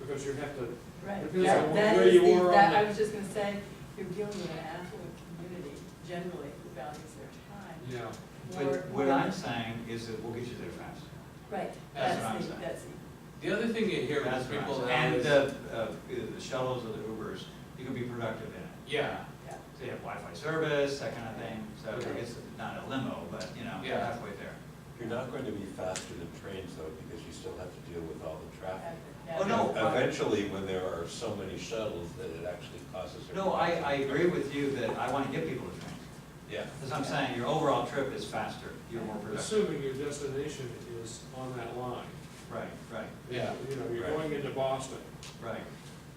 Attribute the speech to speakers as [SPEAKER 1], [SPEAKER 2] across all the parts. [SPEAKER 1] because you have to,
[SPEAKER 2] Right,
[SPEAKER 1] Because
[SPEAKER 2] that,
[SPEAKER 1] of
[SPEAKER 2] that
[SPEAKER 1] where
[SPEAKER 2] is
[SPEAKER 1] you
[SPEAKER 2] the-
[SPEAKER 1] were on
[SPEAKER 2] that-
[SPEAKER 1] the-
[SPEAKER 2] I was just gonna say, you're dealing with an affluent community generally who values their
[SPEAKER 1] you know,
[SPEAKER 2] time. more-
[SPEAKER 3] But what
[SPEAKER 2] more-
[SPEAKER 3] I'm saying is that we'll get you there fast.
[SPEAKER 2] Right,
[SPEAKER 3] That's what
[SPEAKER 2] that's
[SPEAKER 3] I'm
[SPEAKER 2] the,
[SPEAKER 3] saying.
[SPEAKER 2] that's the.
[SPEAKER 4] The other thing you hear
[SPEAKER 3] That's
[SPEAKER 4] is
[SPEAKER 3] what I'm
[SPEAKER 4] people
[SPEAKER 3] saying.
[SPEAKER 4] now
[SPEAKER 3] And
[SPEAKER 4] is,
[SPEAKER 3] the, uh, the shuttles or the Ubers, you can be productive in it.
[SPEAKER 4] yeah,
[SPEAKER 3] So you have Wi-Fi service, that kind of thing, so
[SPEAKER 4] Okay.
[SPEAKER 3] it's not a limo, but, you know,
[SPEAKER 4] Yeah.
[SPEAKER 3] halfway there.
[SPEAKER 5] You're not going to be faster than trains though, because you still have to deal with all the traffic.
[SPEAKER 3] Oh, no.
[SPEAKER 5] And Eventually, when there are so many shuttles, that it actually causes. a-
[SPEAKER 3] No, I, I agree with you that I want to get people to train.
[SPEAKER 5] Yeah.
[SPEAKER 3] As I'm saying, your overall trip is faster, you're more productive.
[SPEAKER 1] assuming your destination is on that line.
[SPEAKER 3] Right, right,
[SPEAKER 4] yeah.
[SPEAKER 1] You know, you're
[SPEAKER 5] Right.
[SPEAKER 1] going into Boston,
[SPEAKER 3] right.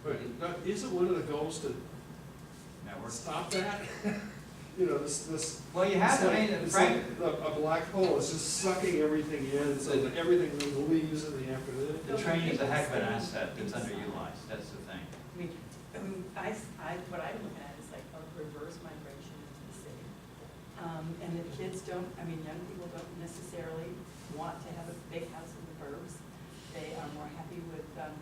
[SPEAKER 1] but not- isn't one of the goals to
[SPEAKER 3] Network.
[SPEAKER 1] stop that? You know, this, this.
[SPEAKER 3] Well, you have, to, I mean,
[SPEAKER 1] it's
[SPEAKER 3] Frank,
[SPEAKER 1] like A, a black hole, it's just sucking everything in, so that everything leaves in the afternoon.
[SPEAKER 3] the train is a heck of an asset that's underutilized, that's the thing.
[SPEAKER 2] I mean, I mean, I, s- I- what I look at is like a reverse migration into the city. Um, and the kids don't, I mean, young people don't necessarily want to have a big house in the burbs. They are more happy with, um,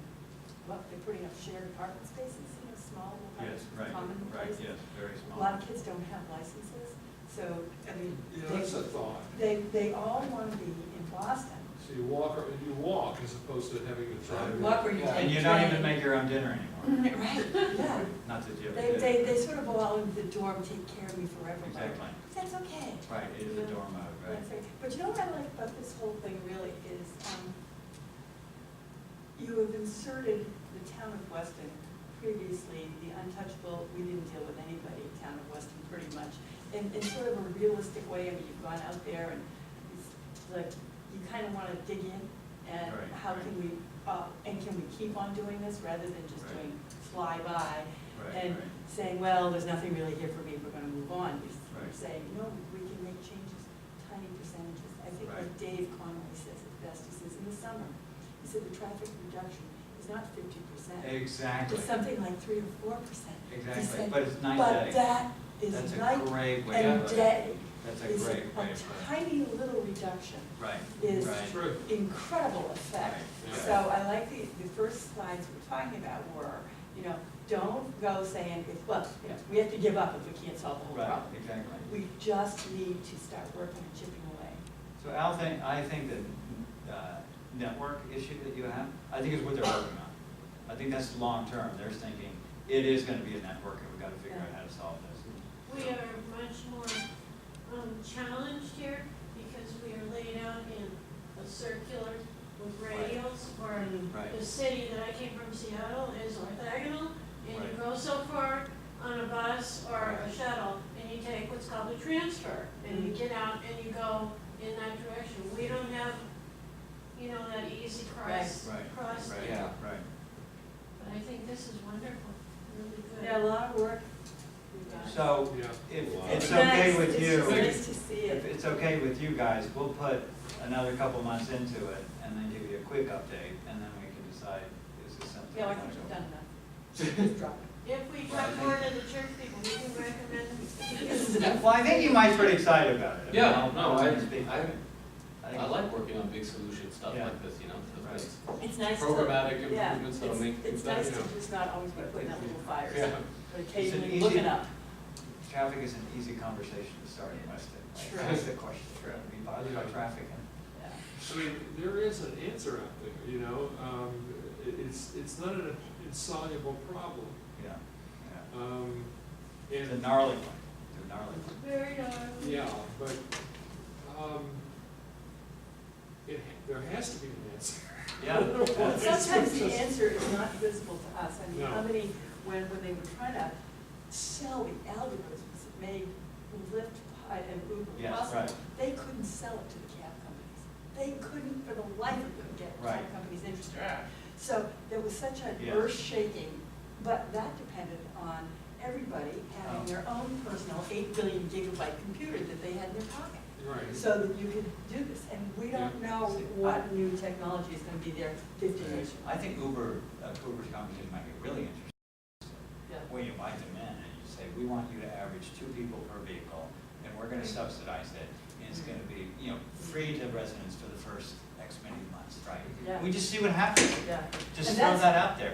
[SPEAKER 2] well, they're putting up shared apartment spaces, you know, small,
[SPEAKER 3] Yes, right,
[SPEAKER 2] like, common
[SPEAKER 3] right,
[SPEAKER 2] places.
[SPEAKER 3] yes, very
[SPEAKER 2] A
[SPEAKER 3] small.
[SPEAKER 2] lot of kids don't have licenses, so, I mean,
[SPEAKER 1] You know,
[SPEAKER 2] they-
[SPEAKER 1] that's a thought.
[SPEAKER 2] they, they all want to be in Boston.
[SPEAKER 1] So you walk, or you walk as opposed to having to drive.
[SPEAKER 2] Walk or you
[SPEAKER 1] Yeah.
[SPEAKER 3] And you don't even make your own dinner anymore,
[SPEAKER 2] Right, yeah.
[SPEAKER 3] not that you ever
[SPEAKER 2] They,
[SPEAKER 3] did.
[SPEAKER 2] they, they sort of go out into the dorm, take care of me forever. but
[SPEAKER 3] Exactly,
[SPEAKER 2] That's okay.
[SPEAKER 3] right, it is a dorm mode, right?
[SPEAKER 2] That's okay. But you know what I like about this whole thing really is, um, you have inserted the town of Weston, previously the untouchable, we didn't deal with anybody, town of Weston pretty much, in, in sort of a realistic way, I mean, you've gone out there and it's like, you kind of want to dig in and
[SPEAKER 3] Right,
[SPEAKER 2] how
[SPEAKER 3] right.
[SPEAKER 2] can we, uh, and can we keep on doing this rather than just
[SPEAKER 3] Right.
[SPEAKER 2] doing flyby
[SPEAKER 3] Right,
[SPEAKER 2] and
[SPEAKER 3] right.
[SPEAKER 2] saying, well, there's nothing really here for me, we're gonna move on. You're s-
[SPEAKER 3] Right.
[SPEAKER 2] saying, no, we can make changes, tiny percentages. I think what
[SPEAKER 3] Right.
[SPEAKER 2] Dave Conway says it best, he says, in the summer, he said the traffic reduction is not fifty percent.
[SPEAKER 3] Exactly,
[SPEAKER 2] It's something like three or four percent.
[SPEAKER 3] exactly, but it's night
[SPEAKER 2] But
[SPEAKER 3] day.
[SPEAKER 2] that
[SPEAKER 3] That's
[SPEAKER 2] is
[SPEAKER 3] a
[SPEAKER 2] night
[SPEAKER 3] great way
[SPEAKER 2] and
[SPEAKER 3] of putting it.
[SPEAKER 2] day.
[SPEAKER 3] That's a
[SPEAKER 2] It's
[SPEAKER 3] great way of
[SPEAKER 2] A
[SPEAKER 3] putting it.
[SPEAKER 2] tiny little reduction,
[SPEAKER 3] Right,
[SPEAKER 2] is-
[SPEAKER 3] right,
[SPEAKER 1] True.
[SPEAKER 2] incredible effect.
[SPEAKER 3] Right,
[SPEAKER 1] yeah.
[SPEAKER 2] So I like the, the first slides we're talking about were, you know, don't go saying, it's well, you know, we have to give up if we can't solve the whole
[SPEAKER 3] right,
[SPEAKER 2] problem.
[SPEAKER 3] exactly.
[SPEAKER 2] We just need to start working and chipping away.
[SPEAKER 3] So Al, think, I think the, uh, network issue that you have, I think is what they're working on. I think that's long-term, they're thinking, it is gonna be a network, and we've gotta figure out how to solve this.
[SPEAKER 6] We are much more um, challenged here because we are laid out in a circular with radials or
[SPEAKER 3] Right.
[SPEAKER 6] the city that I came from Seattle is orthogonal and you
[SPEAKER 3] Right.
[SPEAKER 6] go so far on a bus or a shuttle and you take what's called a transfer and
[SPEAKER 3] Mm-hmm.
[SPEAKER 6] you get out and you go in that direction. We don't have, you know, that easy cross,
[SPEAKER 3] Right,
[SPEAKER 6] cross.
[SPEAKER 3] right,
[SPEAKER 6] there.
[SPEAKER 4] Yeah.
[SPEAKER 3] Right.
[SPEAKER 6] But I think this is wonderful, really good.
[SPEAKER 2] We got a lot of work we've got.
[SPEAKER 3] So,
[SPEAKER 1] Yeah.
[SPEAKER 3] if
[SPEAKER 5] Wow.
[SPEAKER 3] it's okay
[SPEAKER 2] Nice.
[SPEAKER 3] with you.
[SPEAKER 2] It's nice to see
[SPEAKER 3] If
[SPEAKER 2] it.
[SPEAKER 3] it's okay with you guys, we'll put another couple months into it and then give you a quick update and then we can decide is this something.
[SPEAKER 2] Yeah, I think we've done enough. Just drop it.
[SPEAKER 6] If we talk more to the church people, we can recommend.
[SPEAKER 2] This is enough.
[SPEAKER 3] Well, I think you might be pretty excited about it. I mean,
[SPEAKER 4] Yeah,
[SPEAKER 3] I'll-
[SPEAKER 4] no,
[SPEAKER 3] I'll
[SPEAKER 4] I,
[SPEAKER 3] speak.
[SPEAKER 4] I,
[SPEAKER 3] I
[SPEAKER 4] I
[SPEAKER 3] think-
[SPEAKER 4] like working on big solution stuff
[SPEAKER 3] Yeah.
[SPEAKER 4] like this, you know,
[SPEAKER 3] Right.
[SPEAKER 4] so
[SPEAKER 2] It's nice to.
[SPEAKER 4] Programmatic
[SPEAKER 2] yeah,
[SPEAKER 4] improvements that'll
[SPEAKER 2] it's-
[SPEAKER 4] make
[SPEAKER 2] It's
[SPEAKER 4] things
[SPEAKER 2] nice
[SPEAKER 4] better.
[SPEAKER 2] to just not always be putting out little fires,
[SPEAKER 4] Yeah.
[SPEAKER 2] but
[SPEAKER 3] an
[SPEAKER 2] occasionally
[SPEAKER 3] easy-
[SPEAKER 2] looking up.
[SPEAKER 3] Traffic is an easy conversation to start in Weston. Like,
[SPEAKER 2] Sure.
[SPEAKER 3] That's the question, We're gonna be bothered by traffic and.
[SPEAKER 2] Yeah.
[SPEAKER 1] I mean, there is an answer out there, you know, um, it- it's, it's not an insoluble problem.
[SPEAKER 3] Yeah, yeah.
[SPEAKER 1] Um,
[SPEAKER 3] It's a
[SPEAKER 1] and,
[SPEAKER 3] gnarly one, it's a gnarly one.
[SPEAKER 6] Very dark.
[SPEAKER 1] yeah, but, um, it, there has to be an answer.
[SPEAKER 3] Yeah.
[SPEAKER 2] Well,
[SPEAKER 3] that's-
[SPEAKER 2] Sometimes the answer is not visible to us. I mean,
[SPEAKER 1] No.
[SPEAKER 2] how many, when, when they were trying to sell the algorithms that made Lyft pi- and Uber
[SPEAKER 3] Yes,
[SPEAKER 2] possible,
[SPEAKER 3] right.
[SPEAKER 2] they couldn't sell it to the cab companies. They couldn't, for the life of them, get cab
[SPEAKER 3] Right.
[SPEAKER 2] companies interested. So there was such an
[SPEAKER 3] Yes.
[SPEAKER 2] earth shaking, but that depended on everybody
[SPEAKER 3] Oh.
[SPEAKER 2] having their own personal eight billion gigabyte computer that they had in their pocket
[SPEAKER 1] Right.
[SPEAKER 2] so that you could do this, and we don't know what new technology is gonna be there fifty years from now.
[SPEAKER 3] I think Uber, uh, Uber's conversation might get really interesting.
[SPEAKER 2] Yeah.
[SPEAKER 3] When you invite them in and you say, we want you to average two people per vehicle, and we're gonna subsidize it, and it's gonna be, you know, free to residents for the first X many months, right?
[SPEAKER 2] Yeah.
[SPEAKER 3] We just see what happens,
[SPEAKER 2] Yeah.
[SPEAKER 3] just
[SPEAKER 2] And
[SPEAKER 3] throw
[SPEAKER 2] that's-
[SPEAKER 3] that out there.